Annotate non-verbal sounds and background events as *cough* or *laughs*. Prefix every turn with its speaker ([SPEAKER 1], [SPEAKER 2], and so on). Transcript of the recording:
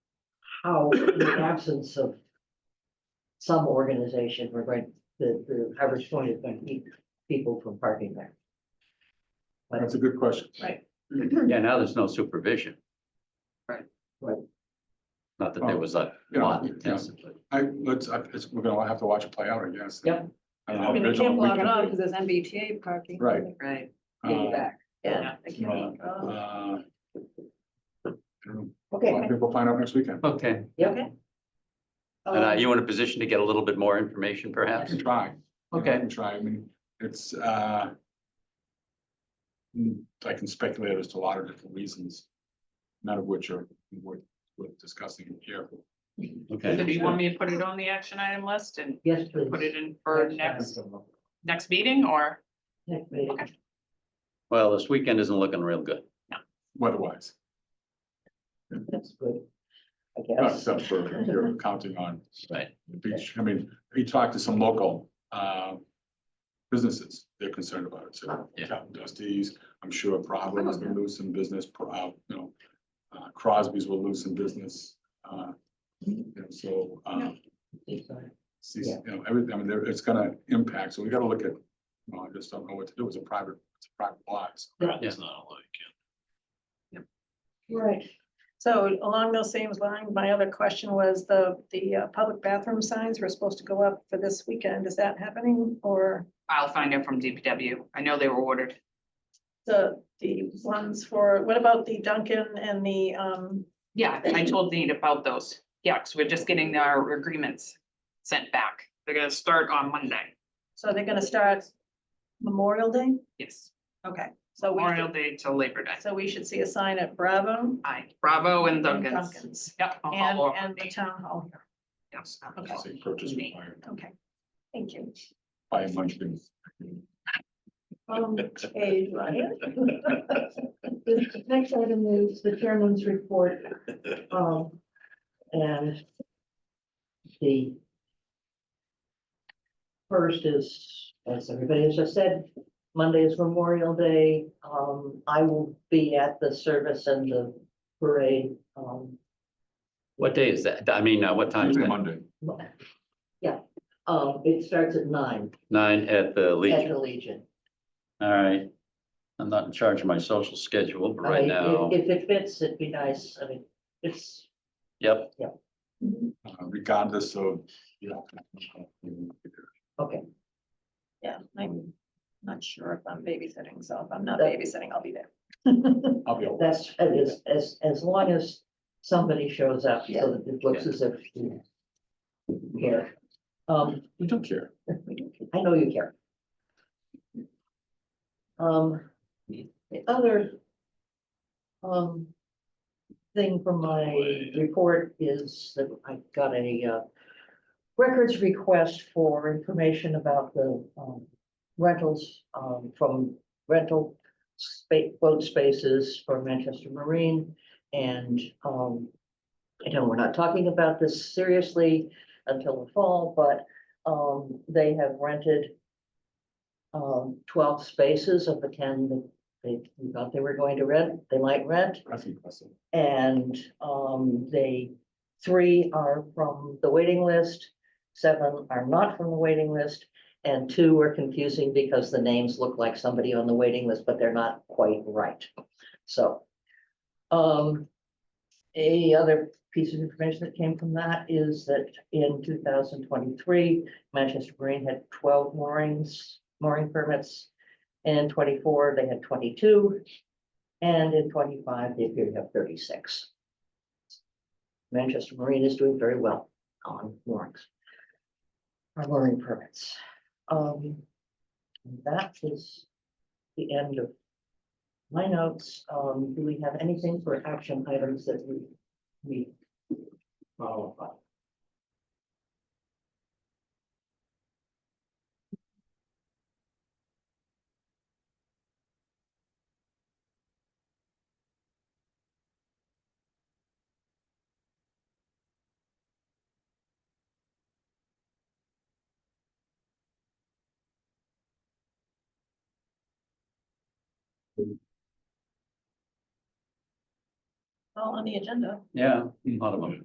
[SPEAKER 1] how, in the absence of some organization, we're going, the, the average point is going to keep people from parking there.
[SPEAKER 2] That's a good question.
[SPEAKER 3] Yeah, now there's no supervision.
[SPEAKER 4] Right.
[SPEAKER 1] Right.
[SPEAKER 3] Not that there was a
[SPEAKER 2] Yeah,
[SPEAKER 3] lot
[SPEAKER 2] yeah.
[SPEAKER 3] intensively.
[SPEAKER 2] I, let's, I, it's, we're gonna have to watch it play out, I guess.
[SPEAKER 1] Yep.
[SPEAKER 2] I don't know
[SPEAKER 5] I
[SPEAKER 2] how
[SPEAKER 5] mean, they
[SPEAKER 2] vigilant
[SPEAKER 5] can't
[SPEAKER 2] we
[SPEAKER 5] block it
[SPEAKER 2] can
[SPEAKER 5] off
[SPEAKER 2] be.
[SPEAKER 5] because there's MBTA parking.
[SPEAKER 2] Right.
[SPEAKER 4] Right,
[SPEAKER 2] Uh,
[SPEAKER 5] Piggyback.
[SPEAKER 1] Yeah.
[SPEAKER 5] They can't block it
[SPEAKER 2] uh,
[SPEAKER 5] off.
[SPEAKER 2] I don't know. A lot
[SPEAKER 1] Okay,
[SPEAKER 2] of people find out next weekend.
[SPEAKER 3] Okay,
[SPEAKER 1] yeah, Oh,
[SPEAKER 3] and are
[SPEAKER 5] Um,
[SPEAKER 3] you in a position to get a little bit more information
[SPEAKER 2] I
[SPEAKER 3] perhaps?
[SPEAKER 2] can try. you know, I
[SPEAKER 3] Okay.
[SPEAKER 2] can Try, I mean, it's, uh, mm, I can speculate as to a lot of different reasons, none of which are worth, worth discussing here.
[SPEAKER 4] so
[SPEAKER 3] Okay,
[SPEAKER 4] do you want me to put it on the action item list and
[SPEAKER 1] yes, please.
[SPEAKER 4] put it in for next, next meeting or?
[SPEAKER 1] Next meeting.
[SPEAKER 3] well, this weekend isn't looking real good.
[SPEAKER 2] Weather-wise,
[SPEAKER 1] That's good. I guess.
[SPEAKER 2] except for
[SPEAKER 1] *laughs*
[SPEAKER 2] you're counting on
[SPEAKER 3] Right.
[SPEAKER 2] the beach, I mean, we talked to some local, uh, businesses, they're concerned about it, so.
[SPEAKER 3] Yeah.
[SPEAKER 2] Captain Dusty's, I'm sure Providence is gonna lose some business, Pro- uh, you know, uh, Crosby's will lose some business, uh, and so, uh, see, you know, everything, I mean, there, it's gonna impact, so we gotta look at, you know, I just don't know what to do, it's a private, it's a private lot, so.
[SPEAKER 3] It's
[SPEAKER 6] not a like.
[SPEAKER 1] Right,
[SPEAKER 5] So along those same lines, my other question was the, the uh, public bathroom signs were supposed to go up for this weekend. Is that happening? Or
[SPEAKER 4] I'll find out from DPW. I know they were ordered.
[SPEAKER 5] the, the ones for, what about the Duncan and the, um,
[SPEAKER 4] Yeah, I told Nate about those. Yeah, 'cause we're just getting our agreements sent back. They're gonna start on Monday.
[SPEAKER 5] so they're gonna start Memorial Day?
[SPEAKER 4] Yes,
[SPEAKER 5] Okay, so Oh, we,
[SPEAKER 4] Memorial
[SPEAKER 5] should-
[SPEAKER 4] Day till Labor Day.
[SPEAKER 5] so we should see a sign at Bravo
[SPEAKER 4] Aye, Bravo and
[SPEAKER 5] and
[SPEAKER 4] Duncan's.
[SPEAKER 5] Duncan's
[SPEAKER 4] Yep. I'll
[SPEAKER 5] and,
[SPEAKER 4] follow up
[SPEAKER 5] and
[SPEAKER 4] with
[SPEAKER 5] the
[SPEAKER 4] Nate.
[SPEAKER 5] town hall here.
[SPEAKER 4] Yes.
[SPEAKER 5] Okay.
[SPEAKER 2] Say purchase required
[SPEAKER 5] Okay, thank you.
[SPEAKER 2] by a bunch of.
[SPEAKER 5] Um, okay, do I hear?
[SPEAKER 1] the next item is the chairman's report, um, and the first is, as everybody has just said, Monday is Memorial Day. Um, I will be at the service and the parade, um,
[SPEAKER 3] What day is that? I mean, uh, what time is
[SPEAKER 2] Usually
[SPEAKER 3] that?
[SPEAKER 2] Monday,
[SPEAKER 1] yeah. Um, it starts at nine
[SPEAKER 3] Nine at the
[SPEAKER 1] at
[SPEAKER 3] Legion.
[SPEAKER 1] the Legion.
[SPEAKER 3] All right. I'm not in charge of my social schedule, but
[SPEAKER 1] I
[SPEAKER 3] right
[SPEAKER 1] mean,
[SPEAKER 3] now,
[SPEAKER 1] If if it fits, it'd be nice. I mean, it's,
[SPEAKER 3] yep,
[SPEAKER 2] uh, regardless of, yeah.
[SPEAKER 1] okay.
[SPEAKER 5] Yeah, I'm not sure if I'm babysitting, so if I'm not
[SPEAKER 1] That-
[SPEAKER 5] babysitting, I'll be there.
[SPEAKER 2] I'll be. all right.
[SPEAKER 1] That's, as, as, as long as somebody shows up, so that it looks as if you care. Um,
[SPEAKER 2] We don't care.
[SPEAKER 1] I know you care. Um, the other um, thing from my report is that I got a uh, records request for information about the um, rentals um, from rental space, boat spaces for Manchester Marine. And um, I know we're not talking about this seriously until the fall, but um, they have rented um, twelve spaces of the ten that they thought they were going to rent, they might rent.
[SPEAKER 2] That's impressive.
[SPEAKER 1] And um, they, three are from the waiting list, seven are not from the waiting list. And two are confusing because the names look like somebody on the waiting list, but they're not quite right. So. Um. A other piece of information that came from that is that in two thousand twenty-three, Manchester Marine had twelve moorings, mooring permits. And twenty-four, they had twenty-two. And in twenty-five, they appear to have thirty-six. Manchester Marine is doing very well on moorings. Our mooring permits. Um, and that is the end of my notes. Um, do we have anything for action items that we, we uh, qualify?
[SPEAKER 5] All on the agenda.
[SPEAKER 3] yeah, a lot of them.